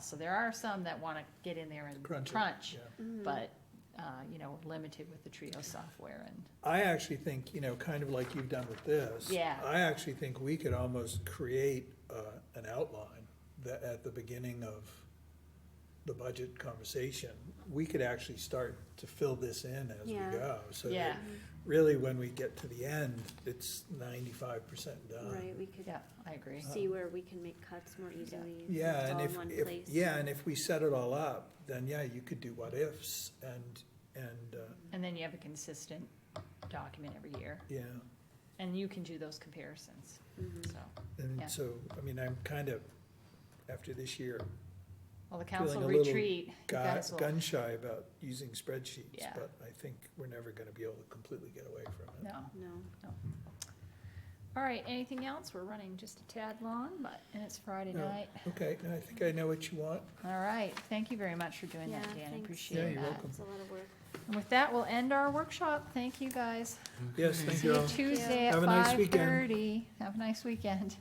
So there are some that want to get in there and Crunch it, crunch, yeah. Mm-hmm. but, uh, you know, limited with the Trio software and, I actually think, you know, kind of like you've done with this. Yeah. I actually think we could almost create, uh, an outline that at the beginning of the budget conversation, we could actually start to fill this in as we Yeah. go. So yeah, that really when we get to the end, it's ninety-five percent done. Right, we could yeah, I agree. Uh, see where we can make cuts more easily. if Yeah, it's and all if, in one if, place. yeah, and if we set it all up, then yeah, you could do what ifs and, and, uh, And then you have a consistent document every year, yeah. and you can do those comparisons, Mhm. so. Yeah. And so, I mean, I'm kind of, after this year, Well, the council a little retreat, you gu- guys will, gun shy about using spreadsheets, Yeah. but I think we're never gonna be able to completely get away from it. no. No, All right, anything else? We're running just a tad long, but, and it's Friday No. night. Okay, now I think I know what you want. All right, thank you very much for doing that, Yeah, Dan, thanks. appreciate that. Yeah, you're welcome. it's a lot of work. And with that, we'll end our workshop. Thank you, guys. Yes, thank See you you all. Tuesday at Have a nice five weekend. thirty. Have a nice weekend.